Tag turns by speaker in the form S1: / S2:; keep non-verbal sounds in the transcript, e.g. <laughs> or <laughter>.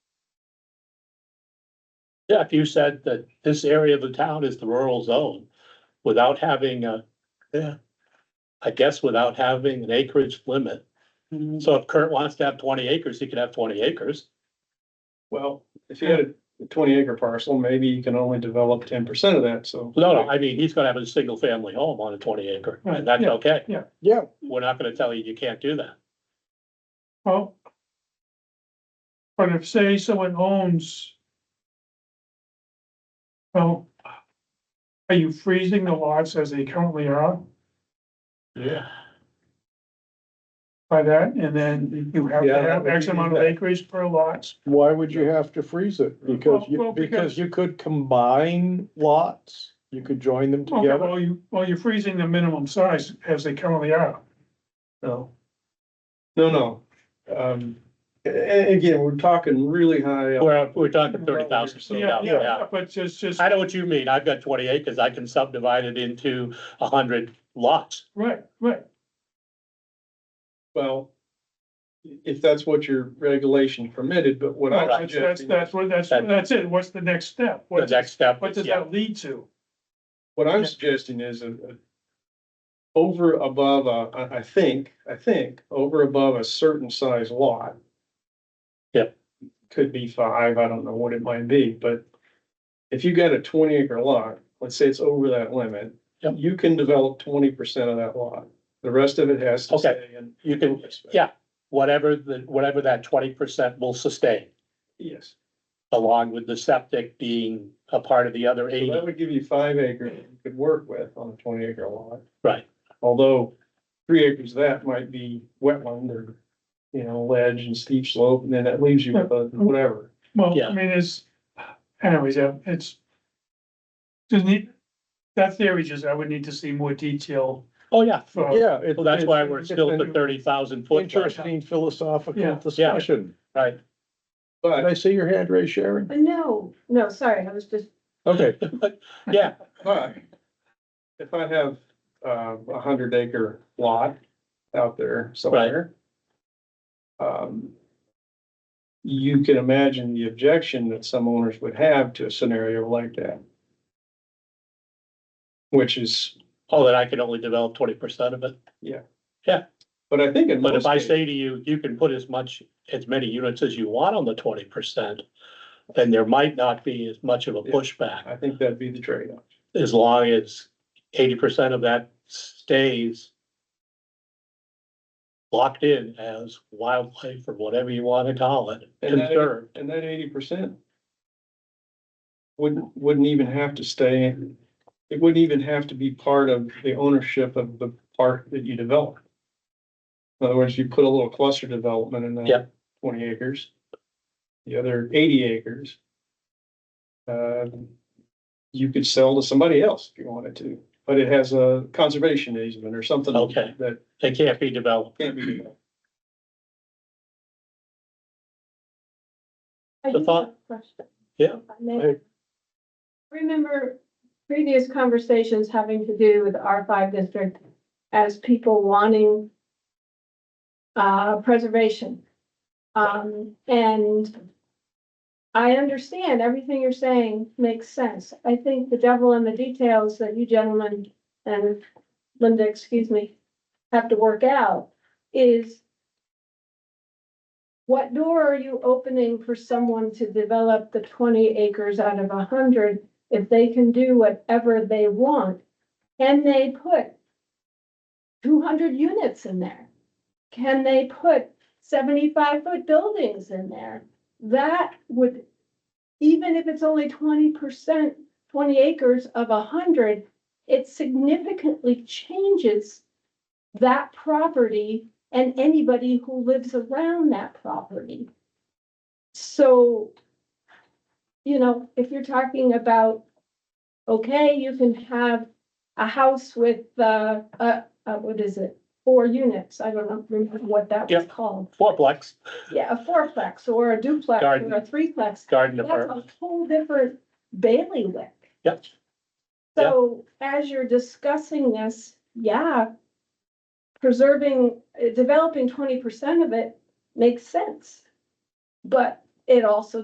S1: Yeah, if you said that this area of the town is the rural zone, without having a, yeah. I guess without having an acreage limit. So if Kurt wants to have twenty acres, he could have twenty acres.
S2: Well, if you had a twenty acre parcel, maybe you can only develop ten percent of that, so.
S1: No, no, I mean, he's gonna have a single family home on a twenty acre,
S2: Right,
S1: and that's
S2: yeah,
S1: okay.
S2: yeah.
S3: Yeah.
S1: We're not gonna tell you you can't do that.
S4: Well. But if, say, someone owns. Well. Are you freezing the lots as they currently are
S1: Yeah.
S4: by that, and then you have to
S2: Yeah, that
S4: have
S2: would
S4: X
S2: be
S4: amount of
S2: that.
S4: acreage per lots?
S3: Why would you have to freeze it? Because
S4: Well,
S3: you,
S4: well, because-
S3: because you could combine lots, you could join them
S4: Okay,
S3: together.
S4: well, you, well, you're freezing the minimum size as they currently are.
S2: No. No, no. Um, a- a- again, we're talking really high. up.
S1: We're, we're talking thirty thousand feet out, yeah.
S4: But just, just,
S1: I know what you mean, I've got twenty acres, I can subdivide it into a hundred lots.
S4: right, right,
S2: Well, i- if that's what your regulation permitted, but what
S4: No,
S2: I'm
S4: that's, that's,
S2: suggesting,
S4: that's what, that's,
S1: That-
S4: that's it, what's the next step?
S1: The
S4: What,
S1: next step
S4: what
S1: is,
S4: does
S1: yeah,
S4: that lead to?
S2: what I'm suggesting is a, a over above, a- I, I think, I think, over above a certain size lot.
S1: Yep.
S2: Could be five, I don't know what it might be, but if you got a twenty acre lot, let's say it's over that limit.
S1: Yep.
S2: You can develop twenty percent of that lot. The rest of it has to
S1: Okay.
S2: stay in.
S1: you can, whatever the, whatever that twenty percent will sustain.
S2: Yes,
S1: along with the septic being a part of the other
S2: so
S1: eighty.
S2: that would give you five acres you could work with on a twenty acre lot.
S1: Right,
S2: Although three acres of that might be wetland or, you know, ledge and steep slope, and then that leaves you with a whatever.
S4: Well,
S1: Yeah.
S4: I mean, it's, anyways, yeah, it's. Just need, that theory just, I would need to see more detail
S1: oh, yeah,
S4: for.
S3: Yeah. it-
S1: well, that's why we're
S3: it's
S1: still at
S3: an
S1: the thirty thousand foot. mark.
S3: Interesting philosophical
S4: Yeah.
S3: discussion.
S1: Right,
S3: Did
S2: But,
S3: I see your hand raised, Sharon?
S5: No, no, sorry, I was just,
S3: Okay,
S1: <laughs> yeah,
S2: but if I have uh, a hundred acre lot out there somewhere. Um, you can imagine the objection that some owners would have to a scenario like that. Which is,
S1: oh, then I can only develop twenty percent of it.
S2: but I think in
S1: But
S2: most
S1: if I
S2: cases,
S1: say to you, you can put as much, as many units as you want on the twenty percent, then there might not be as much of a
S2: Yeah.
S1: pushback,
S2: I think that'd be the trade-off.
S1: as long as eighty percent of that stays locked in as wildlife or whatever you want to call it,
S2: And that-
S1: conserved.
S2: And that eighty percent wouldn't, wouldn't even have to stay, it wouldn't even have to be part of the ownership of the park that you develop. In other words, you put a little cluster development in that
S1: Yep.
S2: twenty acres, the other eighty acres. uh, You could sell to somebody else if you wanted to, but it has a conservation easement or something.
S1: Okay.
S2: That
S1: They can't be developed.
S2: can't be developed.
S1: The
S5: I do have
S1: thought-
S5: a question.
S1: Yeah.
S5: If I may.
S3: Hey.
S5: Remember previous conversations having to do with R five district as people wanting uh, preservation. Um, and I understand everything you're saying makes sense. I think the devil in the details that you gentlemen and Linda, excuse me, have to work out is what door are you opening for someone to develop the twenty acres out of a hundred if they can do whatever they want? Can they put two hundred units in there? Can they put seventy-five foot buildings in there? That would, even if it's only twenty percent, twenty acres of a hundred, it significantly changes that property and anybody who lives around that property. So, you know, if you're talking about, okay, you can have a house with, uh, uh, uh, what is it? Four units, I don't know, remember what that was
S1: Yep.
S5: called.
S1: fourplex
S5: Yeah, a fourplex or a duplex or
S1: Garden.
S5: a threeplex.
S1: garden
S5: That's
S1: apartment.
S5: a whole different bailiwick.
S1: Yep.
S5: So as you're discussing this, yeah, preserving, uh, developing twenty percent of it makes sense. But it also